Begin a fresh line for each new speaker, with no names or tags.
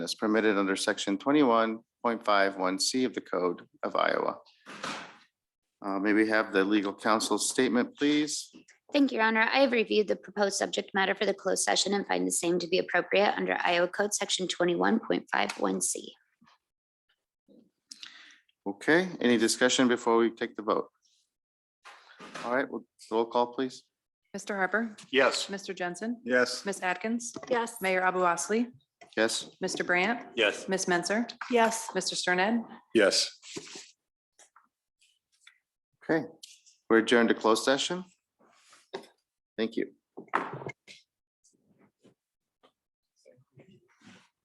as permitted under section twenty-one point five one C of the Code of Iowa. Uh, may we have the legal counsel's statement, please?
Thank you, Your Honor. I have reviewed the proposed subject matter for the closed session and find the same to be appropriate under Iowa Code Section 21.51C.
Okay, any discussion before we take the vote? All right, well, roll call, please.
Mr. Harper,
Yes.
Mr. Jensen,
Yes.
Ms. Atkins,
Yes.
Mayor Abu Osley,
Yes,
Mr. Brandt,
Yes.
Ms. Menzer,
Yes.
Mr. Sterned.
Yes.
okay. We're adjourned to closed session. Thank you.